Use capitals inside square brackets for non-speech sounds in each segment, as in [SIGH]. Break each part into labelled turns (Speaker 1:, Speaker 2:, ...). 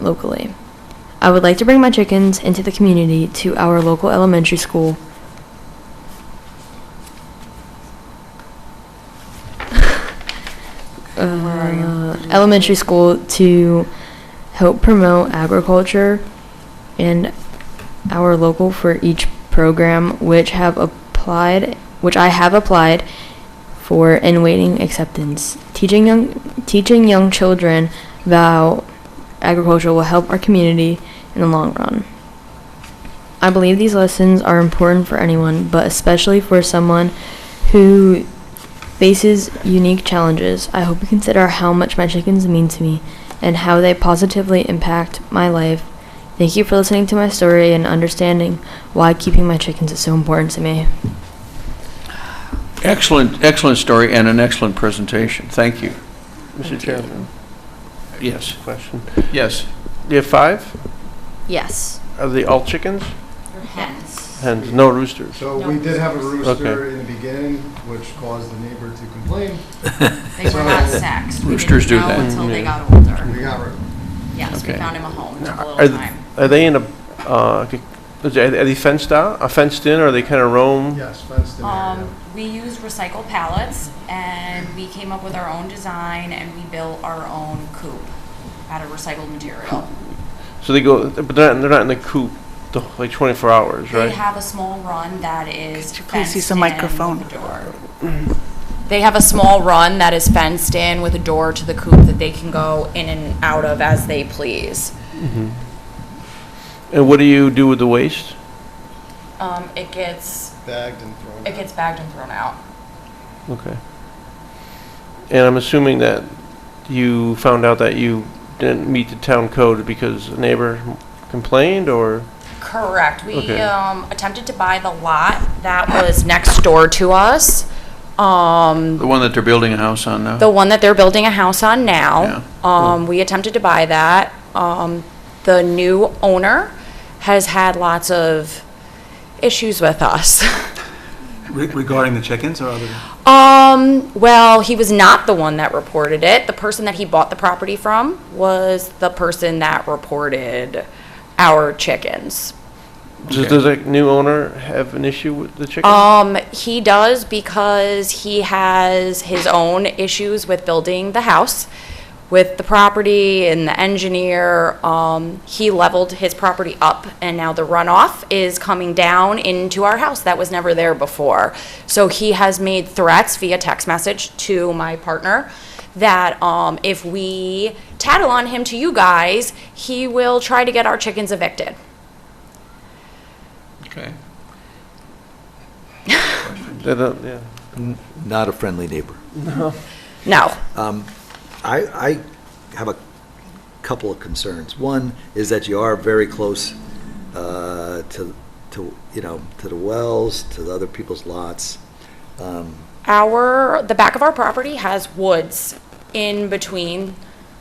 Speaker 1: locally. I would like to bring my chickens into the community to our local elementary school. [LAUGHS] Uh, elementary school to help promote agriculture and our local for each program which have applied which I have applied for and waiting acceptance. Teaching young teaching young children about agriculture will help our community in the long run. I believe these lessons are important for anyone, but especially for someone who faces unique challenges. I hope you consider how much my chickens mean to me and how they positively impact my life. Thank you for listening to my story and understanding why keeping my chickens is so important to me.
Speaker 2: Excellent, excellent story and an excellent presentation. Thank you.
Speaker 3: Mr. Chairman,
Speaker 2: Yes,
Speaker 3: question.
Speaker 2: yes.
Speaker 3: You have five?
Speaker 1: Yes.
Speaker 3: Are they all chickens?
Speaker 1: Yes.
Speaker 3: Hens, no roosters?
Speaker 4: So we did have a rooster
Speaker 3: Okay.
Speaker 4: in the beginning, which caused the neighbor to complain.
Speaker 5: They were not sexed. We
Speaker 2: Roosters do
Speaker 5: didn't know
Speaker 2: that.
Speaker 5: Until they
Speaker 3: Yeah.
Speaker 5: got older.
Speaker 4: We got rid of
Speaker 5: Yes, we
Speaker 2: Okay.
Speaker 5: found him a home, took a
Speaker 3: Are
Speaker 5: little
Speaker 3: th-
Speaker 5: time.
Speaker 3: Are they in a, uh, c- is they- are they fenced out, uh, fenced in, or are they kind of
Speaker 4: it.
Speaker 3: roam?
Speaker 4: Yes, fenced in area.
Speaker 5: Um, we use recycled pallets and we came up with our own design and we built our own coop out of recycled
Speaker 2: Oh,
Speaker 5: material.
Speaker 3: So they go, but they're not, they're not in the coop, the wh- like 24 hours,
Speaker 5: They
Speaker 3: right?
Speaker 5: have a small run that is
Speaker 6: Could you please use
Speaker 5: fenced
Speaker 6: the
Speaker 5: in
Speaker 6: microphone?
Speaker 5: with a door. They have a small run that is fenced in with a door to the coop that they can go in and out of as they please.
Speaker 3: And what do you do with the waste?
Speaker 5: Um, it gets,
Speaker 4: Bagged and thrown
Speaker 5: it
Speaker 4: out.
Speaker 5: gets bagged and thrown out.
Speaker 3: Okay. And I'm assuming that you found out that you didn't meet the town code because a neighbor complained, or?
Speaker 5: Correct. We
Speaker 3: Okay.
Speaker 5: um, attempted to buy the lot that was next door to us, um,
Speaker 2: The one that they're building a house on now?
Speaker 5: the one that they're building a house on
Speaker 2: Yeah.
Speaker 5: now. Um, We attempted to buy that. Um, The new owner has had lots of issues with us. [LAUGHS]
Speaker 7: Re- Regarding the chickens or other?
Speaker 5: Um, well, he was not the one that reported it. The person that he bought the property from was the person that reported our chickens.
Speaker 3: Does,
Speaker 2: Okay.
Speaker 3: does a new owner have an issue with the chicken?
Speaker 5: Um, he does because he has his own issues with building the house, with the property and the engineer. Um, he leveled his property up and now the runoff is coming down into our house that was never there before. So he has made threats via text message to my partner that um, if we tattle on him to you guys, he will try to get our chickens evicted.
Speaker 2: Okay.
Speaker 3: They don't- yeah.
Speaker 8: Not a friendly neighbor.
Speaker 5: No.
Speaker 8: Um, I, I have a couple of concerns. One is that you are very close uh, to, to, you know, to the wells, to the other people's lots. Um,
Speaker 5: our the back of our property has woods in between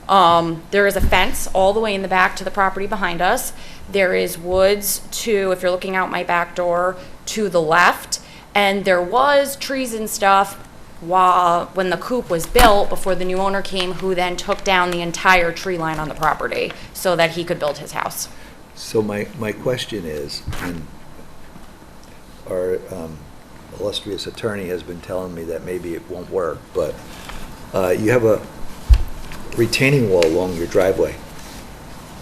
Speaker 5: um, there is a fence all the way in the back to the property behind us there is woods to if you're looking out my back door to the left and there was trees and stuff while when the coop was built before the new owner came who then took down the entire tree line on the property so that he could build his house
Speaker 8: So my, my question is, and our um, illustrious attorney has been telling me that maybe it won't work, but uh, you have a retaining wall along your driveway.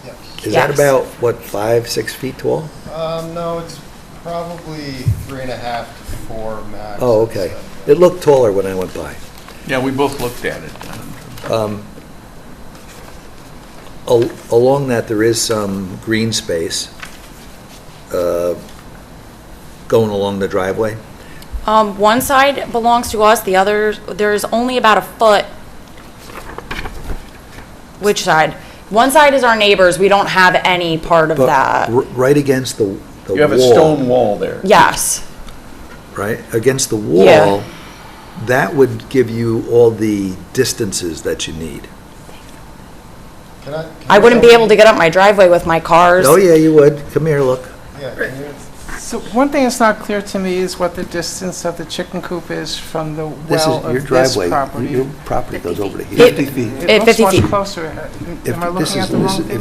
Speaker 4: Yes.
Speaker 8: Is that
Speaker 5: Yes.
Speaker 8: about, what, five, six feet tall?
Speaker 4: Um, no, it's probably three and a half to four max.
Speaker 8: Oh, okay. It looked taller when I went by.
Speaker 2: Yeah, we both looked at it. um,
Speaker 8: Al- Along that, there is some green space uh, going along the driveway.
Speaker 5: Um, one side belongs to us, the other, there's only about a foot. Which side? One side is our neighbors, we don't have any part of
Speaker 8: but
Speaker 5: that.
Speaker 8: r- Right against the the wall.
Speaker 2: You have a stone wall there.
Speaker 5: Yes,
Speaker 8: Right, against the
Speaker 5: Yeah.
Speaker 8: wall, that would give you all the distances that you need.
Speaker 4: Can I? can
Speaker 5: I
Speaker 4: you
Speaker 5: wouldn't
Speaker 4: tell
Speaker 5: be
Speaker 4: me-
Speaker 5: able to get up my driveway with my cars.
Speaker 8: Oh, yeah, you would. Come here, look.
Speaker 4: Yeah, can you?
Speaker 9: So one thing that's not clear to me is what the distance of the chicken coop is from the
Speaker 8: This
Speaker 9: well
Speaker 8: is your
Speaker 9: of this
Speaker 8: driveway.
Speaker 9: property.
Speaker 8: Your property goes over to here.
Speaker 5: It-
Speaker 7: 50 feet.
Speaker 9: It looks
Speaker 5: 50
Speaker 9: much
Speaker 5: feet.
Speaker 9: closer. Am I
Speaker 8: If this
Speaker 9: looking
Speaker 8: is-
Speaker 9: at the
Speaker 8: this
Speaker 9: wrong
Speaker 8: is-
Speaker 9: thing?